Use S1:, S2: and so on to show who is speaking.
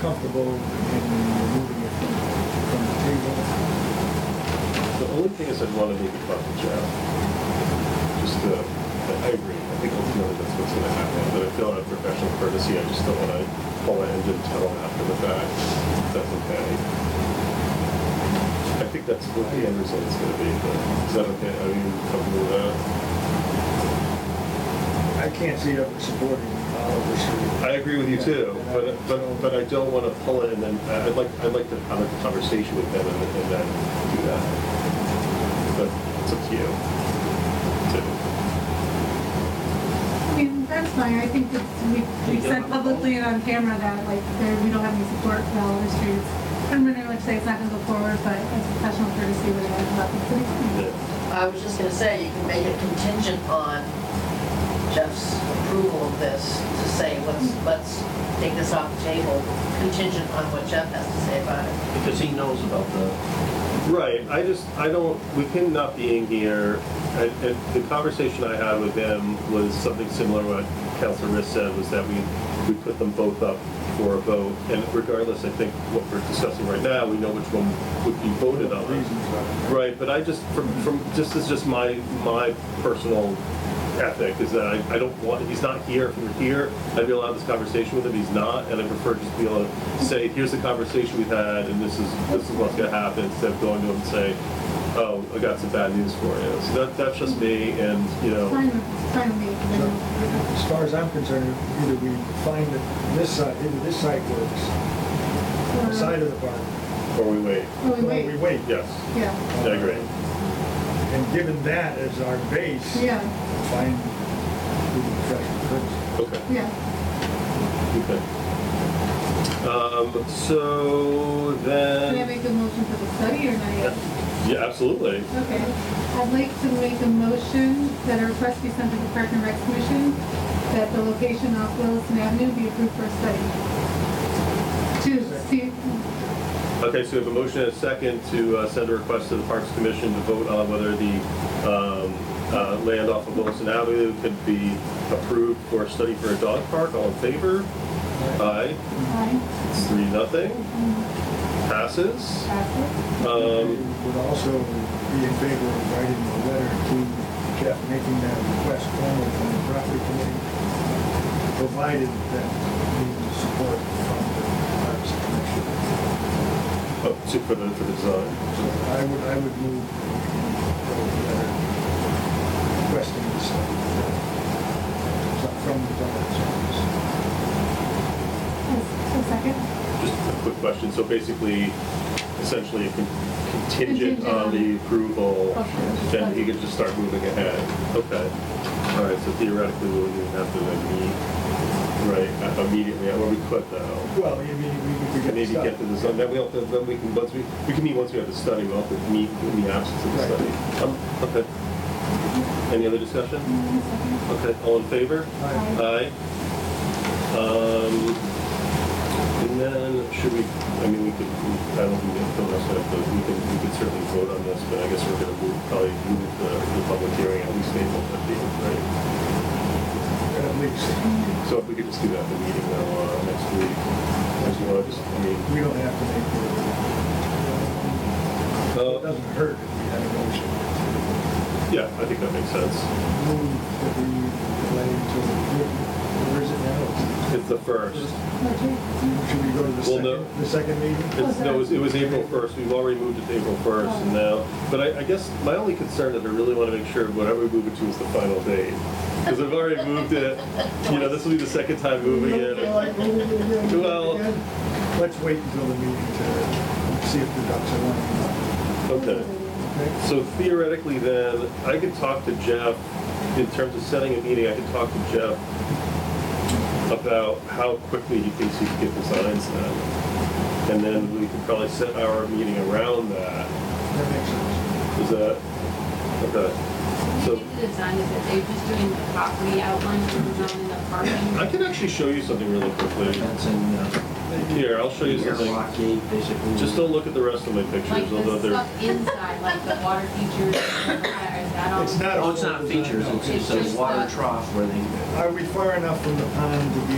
S1: comfortable in removing it from from the table.
S2: The only thing is I'd want to make it about the job. Just, uh, I- I agree, I think ultimately that's what's gonna happen, but I feel out of professional courtesy, I just don't want to pull an engine tunnel after the fact, if that's okay. I think that's what the end result is gonna be, but is that okay, I mean, comfortable with that?
S1: I can't see ever supporting Oliver Street.
S2: I agree with you too,
S1: Yeah.
S2: but, but, but I don't want to pull it and then, I'd like, I'd like to have a conversation with them and then- and then do that. But it's up to you. to-
S3: I mean, that's fine, I think that we, we said publicly and on camera that, like, there, we don't have any support for all the streets. I'm gonna like say it's not gonna go forward, but as a professional courtesy, we're gonna have to put it in.
S2: yeah.
S4: I was just gonna say, you can make it contingent on Jeff's approval of this, to say, let's, let's take this off the table, contingent on what Jeff has to say about it.
S5: Because he knows about the,
S2: Right, I just, I don't, with him not being here, I, I- the conversation I had with him was something similar to what Councilor Riss said, was that we, we put them both up for a vote, and regardless, I think what we're discussing right now, we know which one would be voted on.
S1: Reasons are-
S2: Right, but I just, from, from, just as just my, my personal ethic is that I, I don't want, he's not here, if he were here, I'd be allowed this conversation with him, he's not, and I prefer just be able to say, here's the conversation we've had, and this is, this is what's gonna happen, instead of going to him and say, oh, I got some bad news for you. So that, that's just me, and, you
S3: It's
S2: know,
S3: fine, with- it's fine with me.
S1: So, As far as I'm concerned, either we find that this side, either this side works,
S3: Or-
S1: the side of the barn,
S2: or we wait.
S3: or we
S1: or we
S3: Oh, wait,
S1: wait.
S2: Yes,
S3: yeah,
S2: I agree.
S1: And given that as our base,
S3: yeah,
S1: find the professional courtesy.
S2: Okay.
S3: yeah.
S2: Okay. Um, so
S3: Can I
S2: then,
S3: make a motion for the study or not yet?
S2: Um, yeah, absolutely.
S3: Okay, I'd like to make a motion that a request be sent to the Park and Rec Commission that the location off Williston Avenue be approved for a study. To see,
S2: Okay, so we have a motion and a second to uh, send a request to the Parks Commission to vote on whether the um, uh, land off of Wilson Avenue could be approved for a study for a dog park. All in favor? Aye.
S3: aye,
S2: It's three, nothing. Passes.
S3: pass
S1: We
S2: Um,
S1: Would also be in favor of writing a letter to Jeff, making that request formal from the property committee, provided that we need support from the Parks Commission.
S2: oh, to- for the, for the design.
S1: So I would, I would move a letter requesting this uh, from the Parks Commission.
S3: it. A second?
S2: Just a quick question. So basically, essentially con- contingent
S3: Contingent
S2: on
S3: on-
S2: the approval,
S3: Okay.
S2: then he could just start moving ahead. Okay. All right, so theoretically, we wouldn't even have to like, meet, right, uh, immediately, or we could though.
S1: Well, I mean, we- we could
S2: We can
S1: get
S2: maybe
S1: stuff.
S2: get to the zone, then we have to, then we can, once we, we can meet once we have the study, we'll have to meet in the absence of the
S1: Right.
S2: study. Um, Okay. Any other discussion?
S1: Mm-hmm.
S3: A second.
S2: Okay, all in favor?
S1: Aye.
S2: Aye. Um, and then, should we, I mean, we could, I don't think we have to fill this out, but we can, we could certainly vote on this, but I guess we're gonna move, probably move the, the public hearing at least April fifteenth, right?
S1: At least,
S2: So if we could just do that at the meeting now, uh, next week, as you want, just, I mean,
S1: we don't have to make the,
S2: Uh,
S1: it doesn't hurt if we had a motion.
S2: yeah, I think that makes sense.
S1: move that we delay until, where is it now?
S2: It's the first.
S3: Okay.
S1: Should we go to the
S2: Well, no.
S1: second, the second meeting?
S2: It's, no, it was, it was April first, we've already moved it to April first, and now, but I, I guess my only concern is I really wanna make sure whatever we move it to is the final date. Cause I've already moved it, you know, this will be the second time moving
S1: Don't feel like
S2: it.
S1: moving it again, moving it
S2: Well-
S1: again? Let's wait until the meeting to see if the ducks are lining up.
S2: Okay,
S1: Okay?
S2: so theoretically then, I could talk to Jeff, in terms of setting a meeting, I could talk to Jeff about how quickly he thinks he could get designs done. And then we could probably set our meeting around that,
S1: That makes sense.
S2: is that, okay, so.
S6: The design is that they're just doing the property outline for the zone and the
S2: I
S6: parking.
S2: can actually show you something really quickly.
S5: that's in, uh,
S2: Here, I'll show you something.
S5: airlock gate, basically.
S2: Just don't look at the rest of my
S6: Like
S2: pictures, although
S6: the
S2: they're,
S6: stuff inside, like the water features, is that all?
S1: It's not a
S5: Oh, it's not
S1: full
S5: features,
S1: design, no.
S5: it's, it's a water trough where they.
S1: Are we far enough from the pond to be